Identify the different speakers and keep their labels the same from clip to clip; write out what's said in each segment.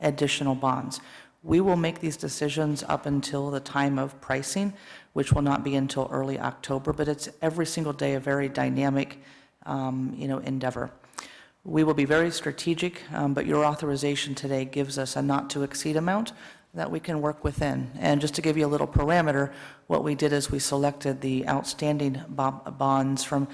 Speaker 1: additional bonds. We will make these decisions up until the time of pricing, which will not be until early October, but it's every single day a very dynamic, um, you know, endeavor. We will be very strategic, um, but your authorization today gives us a not-to-exceed amount that we can work within. And just to give you a little parameter, what we did is we selected the outstanding bo- bonds from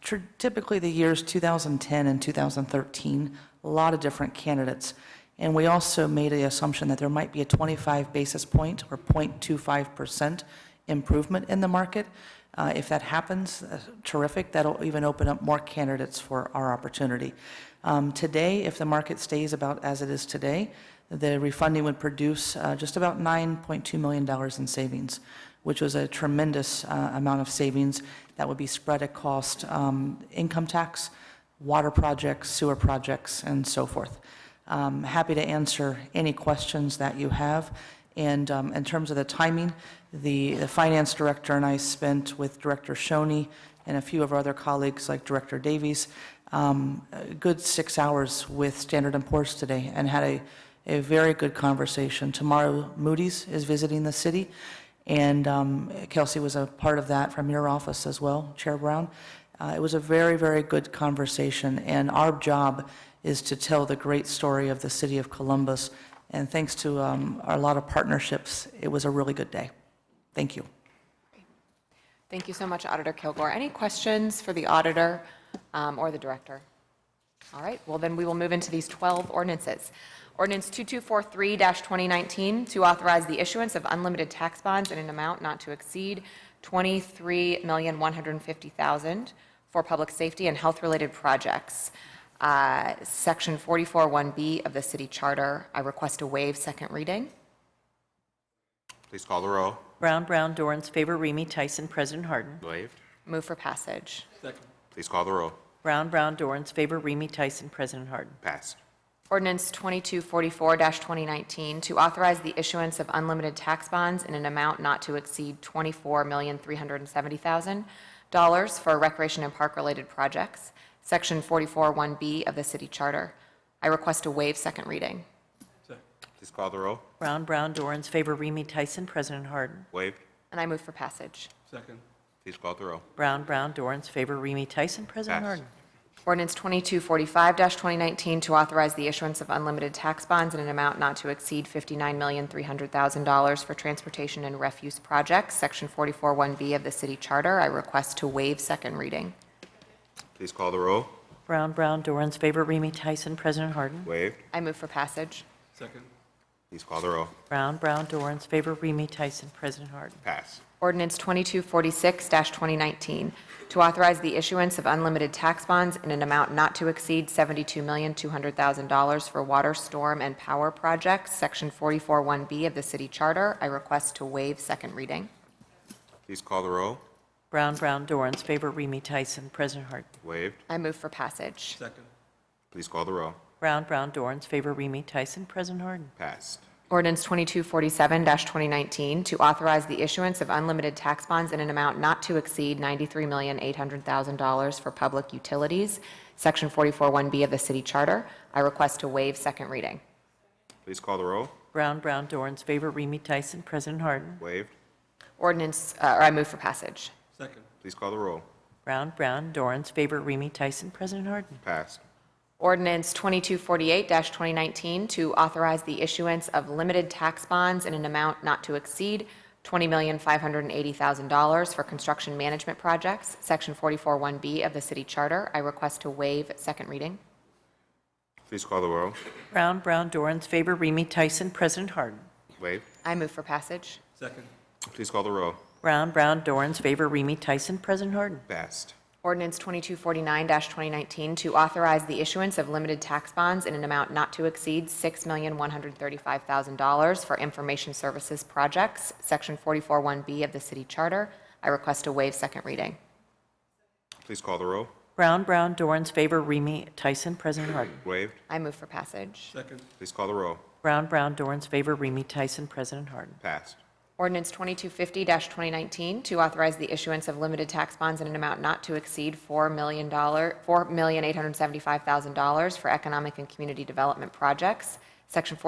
Speaker 1: tr- typically the years 2010 and 2013, a lot of different candidates. And we also made the assumption that there might be a 25 basis point or 0.25% improvement in the market. Uh, If that happens, uh, terrific, that'll even open up more candidates for our opportunity. Um, Today, if the market stays about as it is today, the refunding would produce uh, just about $9.2 million in savings, which was a tremendous uh, amount of savings that would be spread across um, income tax, water projects, sewer projects, and so forth. Um, Happy to answer any questions that you have. And um, in terms of the timing, the the finance director and I spent with Director Shoney and a few of our other colleagues, like Director Davies, um, a good six hours with Standard and Poor's today and had a a very good conversation. Tomorrow, Moody's is visiting the city, and um, Kelsey was a part of that from your office as well, Chair Brown. Uh, It was a very, very good conversation, and our job is to tell the great story of the city of Columbus. And thanks to um, a lot of partnerships, it was a really good day. Thank you.
Speaker 2: Thank you so much, Auditor Kilgore. Any questions for the auditor um, or the director? All right, well, then we will move into these 12 ordinances. Ordinance 2243-2019, to authorize the issuance of unlimited tax bonds in an amount not to exceed $23,150,000 for public safety and health-related projects. Uh, Section 441B of the city charter, I request a waive second reading.
Speaker 3: Please call the row.
Speaker 4: Brown, Brown, Dorans, favor, Remy, Tyson, President Harden.
Speaker 3: Waived.
Speaker 2: Move for passage.
Speaker 3: Please call the row.
Speaker 4: Brown, Brown, Dorans, favor, Remy, Tyson, President Harden.
Speaker 3: Passed.
Speaker 2: Ordinance 2244-2019 to authorize the issuance of unlimited tax bonds in an amount not to exceed $24,370,000 for recreation and park-related projects, Section 441B of the City Charter. I request a waive second reading.
Speaker 3: Please call the row.
Speaker 4: Brown, Brown, Dorans, favor, Remy, Tyson, President Harden.
Speaker 3: Waived.
Speaker 2: And I move for passage.
Speaker 5: Second.
Speaker 3: Please call the row.
Speaker 4: Brown, Brown, Dorans, favor, Remy, Tyson, President
Speaker 3: Passed.
Speaker 4: Harden.
Speaker 2: Ordinance 2245-2019 to authorize the issuance of unlimited tax bonds in an amount not to exceed $59,300,000 for transportation and refuse projects, Section 441B of the City Charter. I request to waive second reading.
Speaker 3: Please call the row.
Speaker 4: Brown, Brown, Dorans, favor, Remy, Tyson, President Harden.
Speaker 3: Waived.
Speaker 2: I move for passage.
Speaker 5: Second.
Speaker 3: Please call the row.
Speaker 4: Brown, Brown, Dorans, favor, Remy, Tyson, President Harden.
Speaker 3: Passed.
Speaker 2: Ordinance 2246-2019, to authorize the issuance of unlimited tax bonds in an amount not to exceed $72,200,000 for water, storm, and power projects, Section 441B of the City Charter. I request to waive second reading.
Speaker 3: Please call the row.
Speaker 4: Brown, Brown, Dorans, favor, Remy, Tyson, President Harden.
Speaker 3: Waived.
Speaker 2: I move for passage.
Speaker 5: Second.
Speaker 3: Please call the row.
Speaker 4: Brown, Brown, Dorans, favor, Remy, Tyson, President Harden.
Speaker 3: Passed.
Speaker 2: Ordinance 2247-2019, to authorize the issuance of unlimited tax bonds in an amount not to exceed $93,800,000 for public utilities, Section 441B of the City Charter. I request to waive second reading.
Speaker 3: Please call the row.
Speaker 4: Brown, Brown, Dorans, favor, Remy, Tyson, President Harden.
Speaker 3: Waived.
Speaker 2: Ordinance, uh, or I move for passage.
Speaker 5: Second.
Speaker 3: Please call the row.
Speaker 4: Brown, Brown, Dorans, favor, Remy, Tyson, President Harden.
Speaker 3: Passed.
Speaker 2: Ordinance 2248-2019, to authorize the issuance of limited tax bonds in an amount not to exceed $20,580,000 for construction management projects, Section 441B of the City Charter. I request to waive second reading.
Speaker 3: Please call the row.
Speaker 4: Brown, Brown, Dorans, favor, Remy, Tyson, President Harden.
Speaker 3: Waived.
Speaker 2: I move for passage.
Speaker 5: Second.
Speaker 3: Please call the row.
Speaker 4: Brown, Brown, Dorans, favor, Remy, Tyson, President Harden.
Speaker 3: Passed.
Speaker 2: Ordinance 2249-2019, to authorize the issuance of limited tax bonds in an amount not to exceed $6,135,000 for information services projects, Section 441B of the City Charter. I request to waive second reading.
Speaker 3: Please call the row.
Speaker 4: Brown, Brown, Dorans, favor, Remy, Tyson, President Harden.
Speaker 3: Waived.
Speaker 2: I move for passage.
Speaker 5: Second.
Speaker 3: Please call the row.
Speaker 4: Brown, Brown, Dorans, favor, Remy, Tyson, President Harden.
Speaker 3: Passed.
Speaker 2: Ordinance 2250-2019, to authorize the issuance of limited tax bonds in an amount not to exceed $4 million, $4,875,000 for economic and community development projects, Section